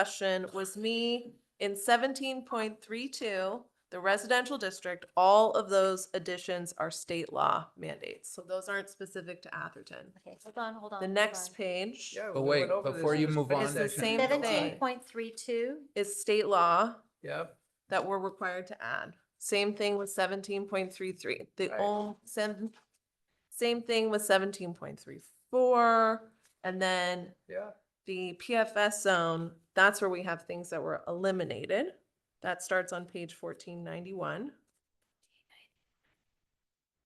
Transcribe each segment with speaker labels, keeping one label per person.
Speaker 1: question was me in seventeen point three two, the residential district, all of those additions are state law mandates. So those aren't specific to Atherton.
Speaker 2: Okay, hold on, hold on.
Speaker 1: The next page
Speaker 3: Yeah,
Speaker 4: But
Speaker 3: we
Speaker 4: wait,
Speaker 3: went over this
Speaker 4: before
Speaker 3: in
Speaker 4: you
Speaker 3: the
Speaker 4: move
Speaker 3: study
Speaker 4: on-
Speaker 1: It's the
Speaker 3: session.
Speaker 1: same thing.
Speaker 2: Seventeen point three two,
Speaker 1: is state law
Speaker 4: Yep,
Speaker 1: that we're required to add. Same thing with seventeen point three three, the
Speaker 3: Right.
Speaker 1: old same, same thing with seventeen point three four. And then
Speaker 3: Yeah,
Speaker 1: the PFS zone, that's where we have things that were eliminated. That starts on page fourteen ninety-one.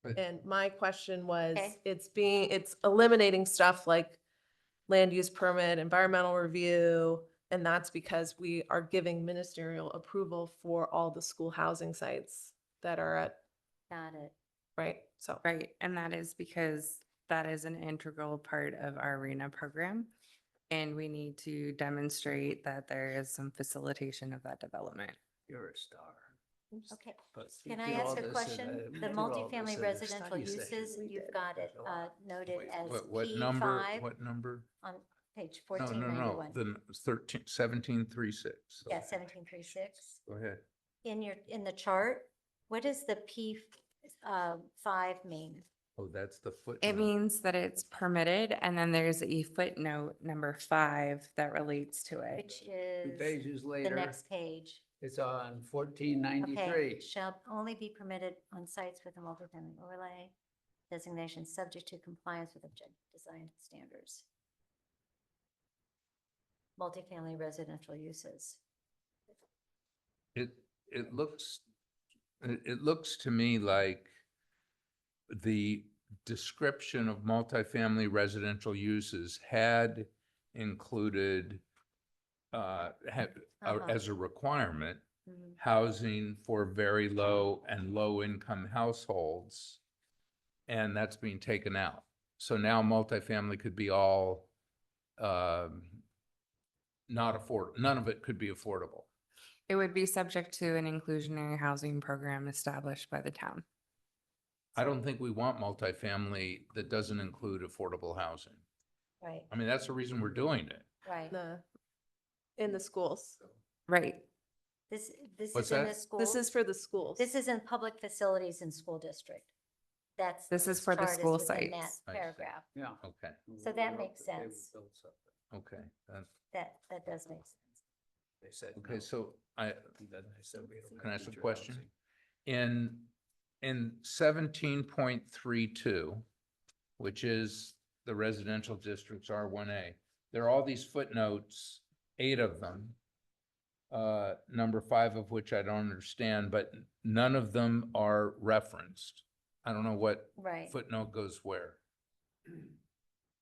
Speaker 4: Right.
Speaker 1: And my question was,
Speaker 2: Okay.
Speaker 1: it's being, it's eliminating stuff like land use permit, environmental review, and that's because we are giving ministerial approval for all the school housing sites that are at,
Speaker 2: got it.
Speaker 1: right? So,
Speaker 5: Right, and that is because that is an integral part of our arena program. And we need to demonstrate that there is some facilitation of that development.
Speaker 4: you're a star.
Speaker 2: Okay,
Speaker 4: But you
Speaker 2: can I
Speaker 4: do all
Speaker 2: ask a
Speaker 3: uh,
Speaker 4: this in
Speaker 2: question? The
Speaker 4: you do all this
Speaker 2: multifamily
Speaker 4: in a
Speaker 2: residential
Speaker 4: study session.
Speaker 2: uses,
Speaker 1: We
Speaker 2: you've
Speaker 1: did.
Speaker 2: got it uh, noted
Speaker 4: Wait,
Speaker 2: as
Speaker 4: What, what
Speaker 2: P
Speaker 4: number,
Speaker 2: five
Speaker 4: what number?
Speaker 2: on page
Speaker 4: No,
Speaker 2: fourteen
Speaker 4: no, no,
Speaker 2: ninety-one.
Speaker 4: the n- thirteen, seventeen, three, six.
Speaker 2: Yeah, seventeen three six.
Speaker 4: Go ahead.
Speaker 2: In your, in the chart, what does the P uh, five mean?
Speaker 4: Oh, that's the foot.
Speaker 5: It means that it's permitted, and then there's a footnote number five that relates to it.
Speaker 2: Which is
Speaker 3: Pages
Speaker 2: the
Speaker 3: later,
Speaker 2: next page.
Speaker 3: it's on fourteen
Speaker 2: Okay,
Speaker 3: ninety-three.
Speaker 2: shall only be permitted on sites with a multifamily overlay designation subject to compliance with objective design standards. Multifamily residential uses.
Speaker 4: It, it looks, it, it looks to me like the description of multifamily residential uses had included uh, had, uh,
Speaker 2: Uh-huh.
Speaker 4: as a requirement,
Speaker 5: Mm-hmm.
Speaker 2: Mhm.
Speaker 4: housing for very low and low-income households. And that's being taken out. So now multifamily could be all, um, not afford, none of it could be affordable.
Speaker 5: It would be subject to an inclusionary housing program established by the town.
Speaker 4: I don't think we want multifamily that doesn't include affordable housing.
Speaker 2: Right,
Speaker 4: I mean, that's the reason we're doing it.
Speaker 2: right.
Speaker 1: the, in the schools.
Speaker 5: Right,
Speaker 2: This, this
Speaker 4: What's
Speaker 2: is in
Speaker 4: that?
Speaker 2: the school.
Speaker 1: This is for the schools.
Speaker 2: This is in public facilities in school district. That's.
Speaker 5: This is for the
Speaker 2: chart
Speaker 5: school
Speaker 2: within that
Speaker 5: sites.
Speaker 4: I see.
Speaker 2: Paragraph,
Speaker 3: Yeah.
Speaker 4: Okay,
Speaker 2: So
Speaker 3: We
Speaker 2: that
Speaker 3: wrote
Speaker 2: makes
Speaker 3: they would
Speaker 2: sense.
Speaker 3: build something.
Speaker 4: okay. that's-
Speaker 2: that, that does make sense.
Speaker 3: They said.
Speaker 4: Okay,
Speaker 3: no.
Speaker 4: so I,
Speaker 3: And then they said we don't
Speaker 4: Can I
Speaker 3: have
Speaker 4: ask a
Speaker 3: teacher
Speaker 4: question?
Speaker 3: housing.
Speaker 4: In, in seventeen point three two, which is the residential districts R one A, there are all these footnotes, eight of them. Uh, number five of which I don't understand, but none of them are referenced. I don't know what
Speaker 2: Right,
Speaker 4: footnote goes where.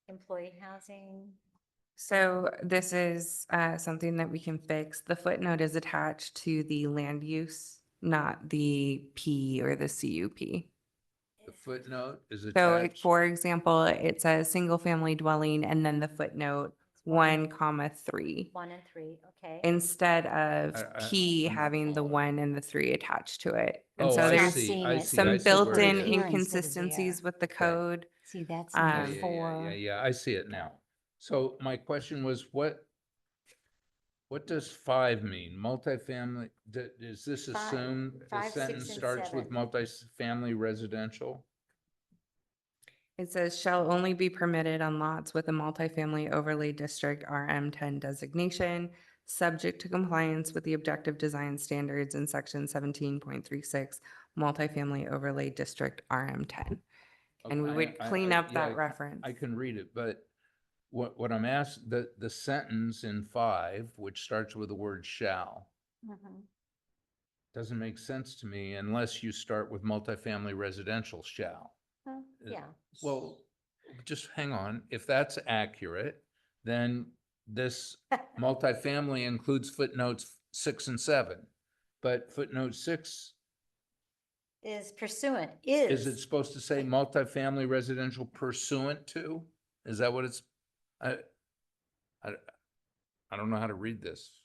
Speaker 2: employee housing,
Speaker 5: so this is uh, something that we can fix. The footnote is attached to the land use, not the P or the CUP.
Speaker 4: The footnote is
Speaker 5: So like,
Speaker 4: attached.
Speaker 5: for example, it says single family dwelling and then the footnote one comma three.
Speaker 2: one and three, okay?
Speaker 5: Instead of
Speaker 4: I- I-
Speaker 5: P
Speaker 4: I'm not
Speaker 5: having the
Speaker 4: following.
Speaker 5: one and the three attached to it. And
Speaker 4: Oh,
Speaker 5: so
Speaker 4: I
Speaker 5: there's
Speaker 4: see,
Speaker 2: seeing
Speaker 4: I
Speaker 2: it.
Speaker 4: see, I
Speaker 5: some
Speaker 4: see where it
Speaker 5: built-in
Speaker 4: is.
Speaker 2: Here instead of
Speaker 5: inconsistencies
Speaker 2: there.
Speaker 5: with the code.
Speaker 2: See, that's
Speaker 4: Oh,
Speaker 5: Um,
Speaker 4: Yeah,
Speaker 2: number
Speaker 4: yeah, yeah, Yeah,
Speaker 2: four.
Speaker 4: yeah, I see it now. So my question was, what, what does five mean? Multifamily, d- does this
Speaker 2: Five-
Speaker 4: assume the
Speaker 2: five, six,
Speaker 4: sentence
Speaker 2: and
Speaker 4: starts with
Speaker 2: seven.
Speaker 4: multifamily residential?
Speaker 5: It says shall only be permitted on lots with a multifamily overlay district RM ten designation, subject to compliance with the objective design standards in section seventeen point three six, multifamily overlay district RM ten. And we
Speaker 4: Okay,
Speaker 5: would
Speaker 4: I- I-
Speaker 5: clean
Speaker 4: yeah,
Speaker 5: up
Speaker 4: I
Speaker 5: that
Speaker 4: can-
Speaker 5: reference.
Speaker 4: I can read it, but what, what I'm asked, the, the sentence in five, which starts with the word shall,
Speaker 2: Mhm.
Speaker 4: doesn't make sense to me unless you start with multifamily residential shall.
Speaker 2: Huh,
Speaker 4: Uh,
Speaker 2: Yeah,
Speaker 4: Well, just hang on. If that's accurate, then this multifamily includes footnotes six and seven. But footnote six,
Speaker 2: is pursuant,
Speaker 4: is it
Speaker 2: is,
Speaker 4: supposed to say multifamily residential pursuant to? Is that what it's? I, I, I don't know how to read this.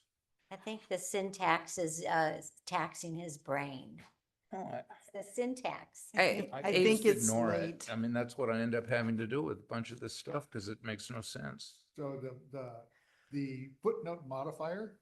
Speaker 2: I think the syntax is uh, taxing his brain.
Speaker 4: I
Speaker 2: It's The syntax.
Speaker 5: I-
Speaker 4: I
Speaker 5: I
Speaker 4: can
Speaker 5: think
Speaker 4: just
Speaker 6: it's
Speaker 4: ignore it.
Speaker 6: late.
Speaker 4: I mean, that's what I end up having to do with a bunch of this stuff because it makes no sense.
Speaker 6: So the, the,
Speaker 3: the footnote modifier